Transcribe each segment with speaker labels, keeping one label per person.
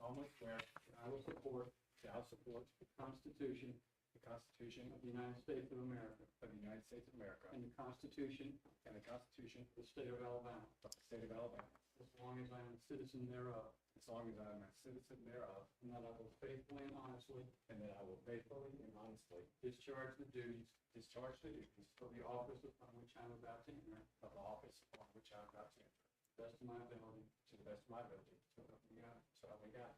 Speaker 1: solemnly swear that I will support, shall support the Constitution, the Constitution of the United States of America,
Speaker 2: of the United States of America
Speaker 1: and the Constitution
Speaker 2: and the Constitution
Speaker 1: of the State of Alabama,
Speaker 2: of the State of Alabama,
Speaker 1: as long as I am a citizen thereof,
Speaker 2: as long as I am a citizen thereof,
Speaker 1: and that I will faithfully and honestly
Speaker 2: and that I will faithfully and honestly
Speaker 1: discharge the duties
Speaker 2: discharge the duties
Speaker 1: of the office upon which I am about to enter,
Speaker 2: of the office upon which I am about to enter,
Speaker 1: to the best of my ability.
Speaker 2: to the best of my ability, so help me God. So help me God.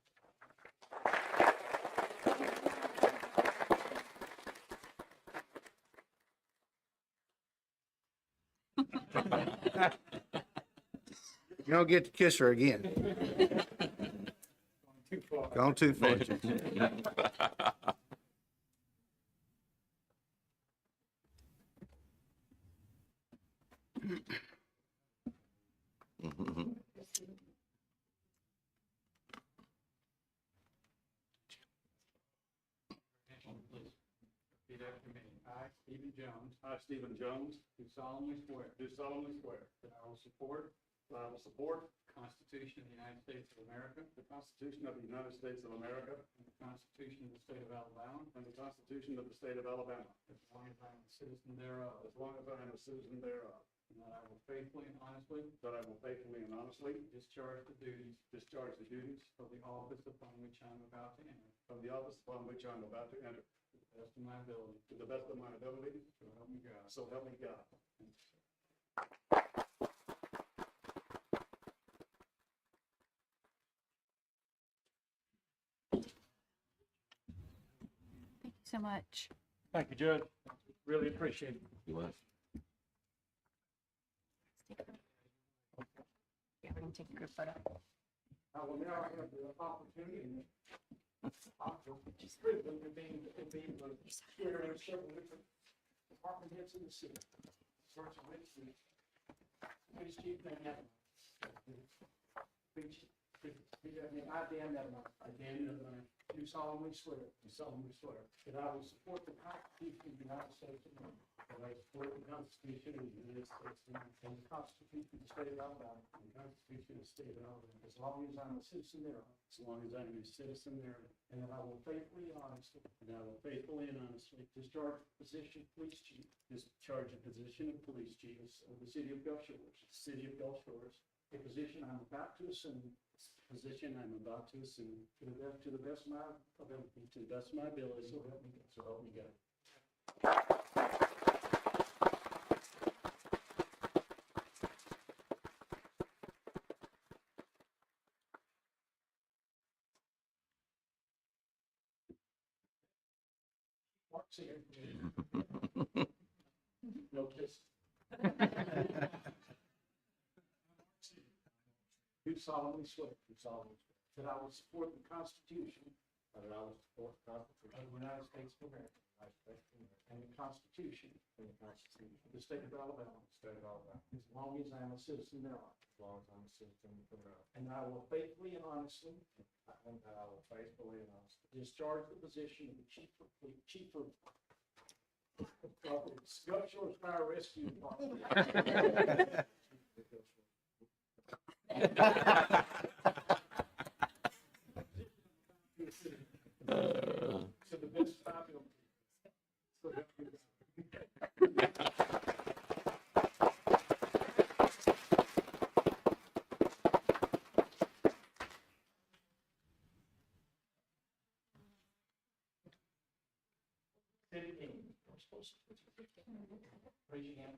Speaker 3: You don't get to kiss her again.
Speaker 2: Too far.
Speaker 3: Gone too far.
Speaker 1: Please. Repeat after me. I, Stephen Jones. I, Stephen Jones. Do solemnly swear. Do solemnly swear. That I will support. That I will support. The Constitution of the United States of America. The Constitution of the United States of America. And the Constitution of the State of Alabama. And the Constitution of the State of Alabama. As long as I am a citizen thereof. As long as I am a citizen thereof. And that I will faithfully and honestly. That I will faithfully and honestly. Discharge the duties. Discharge the duties. Of the office upon which I am about to enter. Of the office upon which I am about to enter. To the best of my ability. To the best of my ability. So help me God. So help me God.
Speaker 4: Thank you so much.
Speaker 1: Thank you, Judge. Really appreciate it.
Speaker 5: You what?
Speaker 4: Yeah, we're gonna take a group photo.
Speaker 1: I will now have the opportunity. It's privilege to be, to be the chair of several different department heads in the city. First of which is police chief Dan Nevlin. Which, I, Dan Nevlin. I, Dan Nevlin. Do solemnly swear. Do solemnly swear. That I will support the Constitution of the United States of America. That I support the Constitution of the United States of America. And the Constitution of the State of Alabama. And the Constitution of the State of Alabama. As long as I'm a citizen thereof. As long as I'm a citizen thereof. And that I will faithfully and honestly. And I will faithfully and honestly discharge the position of police chief. Discharge the position of police chief of the city of Gulf Shores. City of Gulf Shores. The position I'm about to assume position I'm about to assume to the best, to the best of my ability, to the best of my ability, so help me God. So help me God. Mark's here. No kiss. Do solemnly swear. Do solemnly swear. That I will support the Constitution. That I will support the Constitution. Of the United States of America. And the Constitution. And the Constitution. Of the State of Alabama. State of Alabama. As long as I am a citizen thereof. As long as I'm a citizen thereof. And I will faithfully and honestly. And I will faithfully and honestly. Discharge the position of the chief of, the chief of. of the Gulf Shores Fire Rescue Department. To the best of my ability. So help me God. City King. Raise your hand.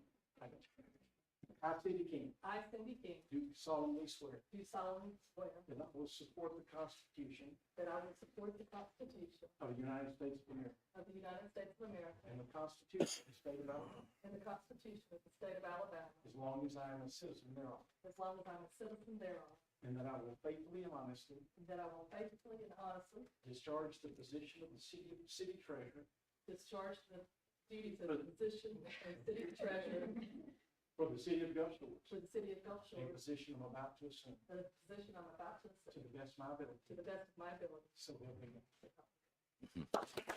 Speaker 1: I, City King,
Speaker 6: I, Cindy King,
Speaker 1: do solemnly swear
Speaker 6: do solemnly swear
Speaker 1: that I will support the Constitution
Speaker 6: that I will support the Constitution
Speaker 1: of the United States of America
Speaker 6: of the United States of America
Speaker 1: and the Constitution of the State of Alabama
Speaker 6: and the Constitution of the State of Alabama,
Speaker 1: as long as I am a citizen thereof,
Speaker 6: as long as I'm a citizen thereof,
Speaker 1: and that I will faithfully and honestly
Speaker 6: and that I will faithfully and honestly
Speaker 1: discharge the position of the city city treasurer
Speaker 6: discharge the duties of the position of City Treasurer
Speaker 1: for the city of Gulf Shores,
Speaker 6: for the City of Gulf
Speaker 1: a
Speaker 6: Shores,
Speaker 1: position I'm about to assume
Speaker 6: the position I'm about to
Speaker 1: to
Speaker 6: assume,
Speaker 1: the best of my ability.
Speaker 6: to the best of my ability.
Speaker 1: So help me God.